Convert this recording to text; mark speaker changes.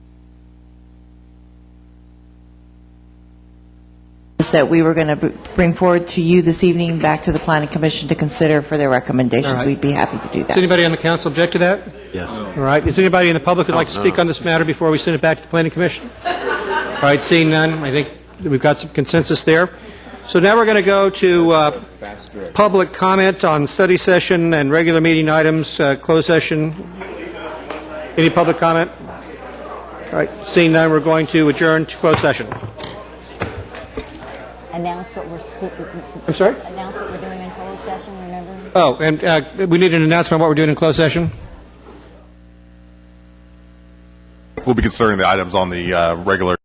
Speaker 1: items that we were going to bring forward to you this evening, back to the Planning Commission to consider for their
Speaker 2: All
Speaker 1: recommendations.
Speaker 2: right.
Speaker 1: We'd be happy to do
Speaker 2: Does
Speaker 1: that.
Speaker 2: anybody on the council object to that?
Speaker 3: Yes.
Speaker 2: All right, is anybody in the public who'd like to speak on this matter before we send it back to the planning commission? All right, seeing none, I think that we've got some consensus there. So now we're going to go to uh, public comment on study session and regular meeting items, uh, closed session. Any public comment? All right, seeing none, we're going to adjourn to closed session.
Speaker 4: announce what we're,
Speaker 2: I'm sorry?
Speaker 4: announce what we're doing in closed session, remember?
Speaker 2: Oh, and uh, we need an announcement on what we're doing in closed session?
Speaker 5: We'll be considering the items on the uh, regular